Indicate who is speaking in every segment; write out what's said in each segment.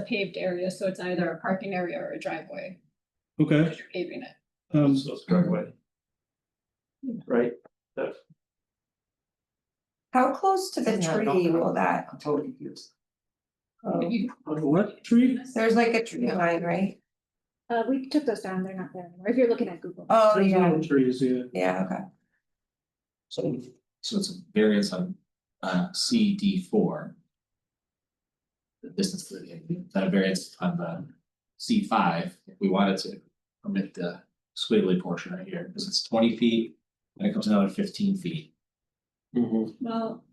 Speaker 1: a paved area, so it's either a parking area or a driveway,
Speaker 2: Okay,
Speaker 1: because you're paving it.
Speaker 2: um,
Speaker 3: So it's
Speaker 4: Mm-hmm.
Speaker 3: driveway. Right, that,
Speaker 5: How close to the
Speaker 6: Yeah, I don't
Speaker 5: tree
Speaker 6: know.
Speaker 5: will that,
Speaker 6: I'm totally confused.
Speaker 5: go?
Speaker 1: You-
Speaker 2: what tree?
Speaker 5: there's like a tree line, right?
Speaker 7: Uh, we took those down, they're not there anymore, if you're looking at Google.
Speaker 5: Oh,
Speaker 2: There's
Speaker 5: yeah,
Speaker 2: no Trees, yeah.
Speaker 5: yeah, okay,
Speaker 8: So, so it's a variance on uh C D four. The distance to the, that variance on the C five, if we wanted to permit the squiggly portion right here, because it's twenty feet. And it comes another fifteen feet.
Speaker 4: Mm-hmm.
Speaker 1: Well,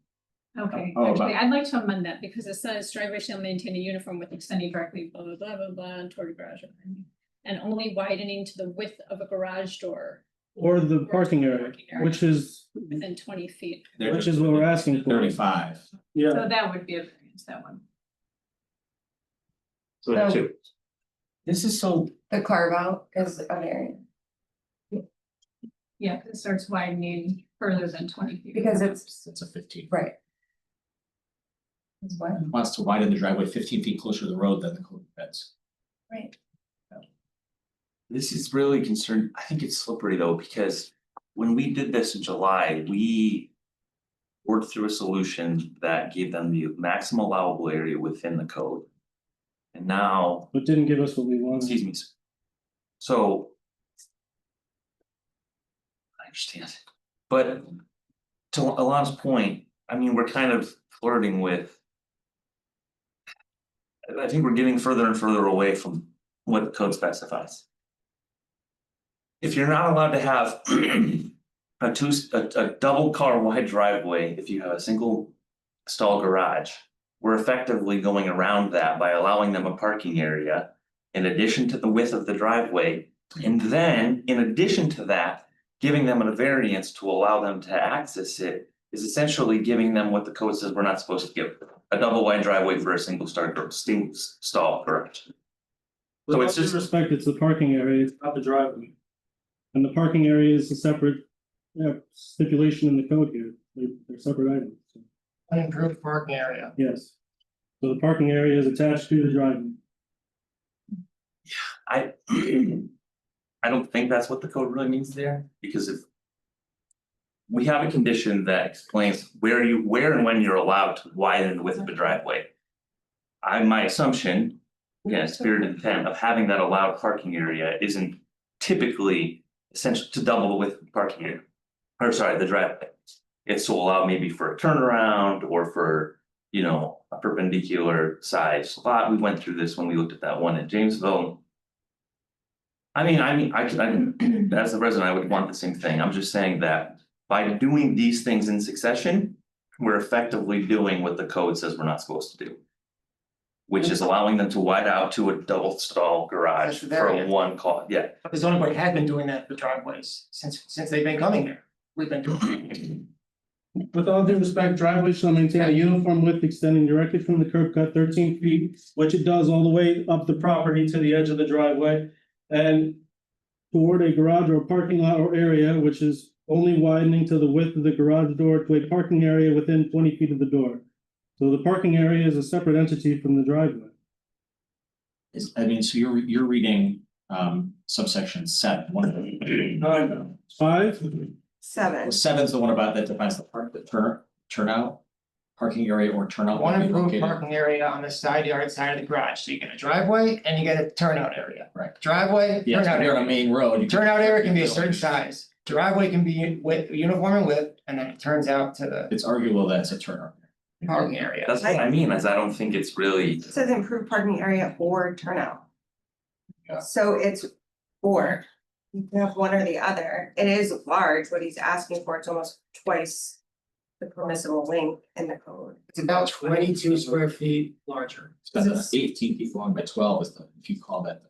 Speaker 1: okay,
Speaker 8: Oh,
Speaker 1: actually,
Speaker 8: but-
Speaker 1: I'd like to amend that because it says driveway shall maintain a uniform width extending directly blah, blah, blah, blah, blah, toward a garage. or anything, And only widening to the width of a garage door
Speaker 2: Or the parking area,
Speaker 1: Parking area.
Speaker 2: which is,
Speaker 1: within twenty feet.
Speaker 8: They're
Speaker 2: Which is what we're asking for.
Speaker 8: Thirty-five.
Speaker 2: yeah,
Speaker 1: So that would be a variance, that one.
Speaker 3: so that
Speaker 5: So-
Speaker 3: too,
Speaker 6: This is so,
Speaker 5: the carve out is an area,
Speaker 1: Yeah, 'cause it starts widening further than twenty feet.
Speaker 5: because it's,
Speaker 8: It's a fifteen.
Speaker 5: right. Is what,
Speaker 8: Wants to widen the driveway fifteen feet closer to the road than the code fence.
Speaker 5: right,
Speaker 4: This is really concerned, I think it's slippery though, because when we did this in July, we. Worked through a solution that gave them the maximum allowable area within the code. And now,
Speaker 2: but didn't give us what we wanted.
Speaker 4: excuse me. s- So. I understand, but to Alana's point, I mean, we're kind of flirting with. I- I think we're getting further and further away from what the code specifies. If you're not allowed to have a two, a, a double car wide driveway, if you have a single stall garage. We're effectively going around that by allowing them a parking area in addition to the width of the driveway. And then, in addition to that, giving them a variance to allow them to access it is essentially giving them what the code says we're not supposed to give. A double wide driveway for a single star, single stall garage. So it's
Speaker 2: With all due
Speaker 4: just-
Speaker 2: Respect, it's the parking area, it's not the driveway. And the parking area is a separate, yeah, stipulation in the code here, they're, they're separate items, so,
Speaker 6: unimproved parking area.
Speaker 2: yes. So the parking area is attached to the driveway.
Speaker 4: I. I don't think that's what the code really means there, because if. We have a condition that explains where you, where and when you're allowed to widen the width of a driveway. I, my assumption, again, spirit and intent of having that allowed parking area isn't typically essential to double the width of the parking area. Or sorry, the driveway. It's to allow maybe for a turnaround or for, you know, a perpendicular size lot. We went through this when we looked at that one in Jamesville. I mean, I mean, I could, I, could- as a resident, I would want the same thing. I'm just saying that by doing these things in succession. We're effectively doing what the code says we're not supposed to do. Which is allowing them to wide out to a double stall garage
Speaker 6: That's the
Speaker 4: for
Speaker 6: variance.
Speaker 4: one car, yeah.
Speaker 6: But The zoning board had been doing that for driveways since, since they've been coming here. We've been doing. it.
Speaker 2: With all due respect, driveway shall maintain a uniform width extending directly from the curb cut thirteen feet, which it does all the way up the property to the edge of the driveway. And toward a garage or parking lot or area which is only widening to the width of the garage door to a parking area within twenty feet of the door. So the parking area is a separate entity from the driveway.
Speaker 8: Is, I mean, so you're, you're reading um subsection seven, one of the.
Speaker 2: Five,
Speaker 5: seven,
Speaker 8: Well, Seven's the one about that defines the park, the turn, turnout, parking area or turnout.
Speaker 6: One
Speaker 8: may be
Speaker 6: improved
Speaker 8: located-
Speaker 6: parking area on the side yard side of the garage, so you get a driveway and you get a turnout area.
Speaker 8: Right.
Speaker 6: Driveway,
Speaker 8: Yeah, if
Speaker 6: turnout
Speaker 8: you're on a
Speaker 6: area,
Speaker 8: main road. you can-
Speaker 6: turnout area can be a certain size, driveway can be with, uniform in width, and then it turns out to the
Speaker 8: It's arguable that it's a turnout.
Speaker 6: parking area.
Speaker 4: That's what I mean, is I don't think it's really,
Speaker 5: it says improved parking area or turnout.
Speaker 8: Yeah.
Speaker 5: So it's or, you can have one or the other, it is large, what he's asking for, it's almost twice the permissible length in the code.
Speaker 6: It's about twenty-two square feet larger.
Speaker 8: It's about the eighteen feet long by twelve is the, if you call that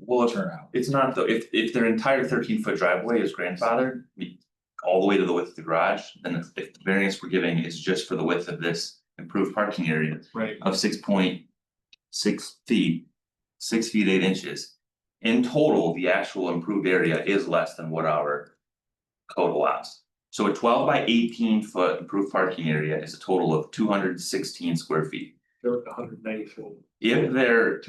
Speaker 4: well,
Speaker 8: the
Speaker 4: if-
Speaker 8: turnout.
Speaker 4: it's not though, if if their entire thirteen foot driveway is grandfathered. we- All the way to the width of the garage, then if if the variance we're giving is just for the width of this improved parking area
Speaker 3: right,
Speaker 4: of six point six feet. Six feet eight inches. In total, the actual improved area is less than what our. Code allows, so a twelve by eighteen foot improved parking area is a total of two hundred and sixteen square feet.
Speaker 3: they're hundred ninety four.
Speaker 4: If they're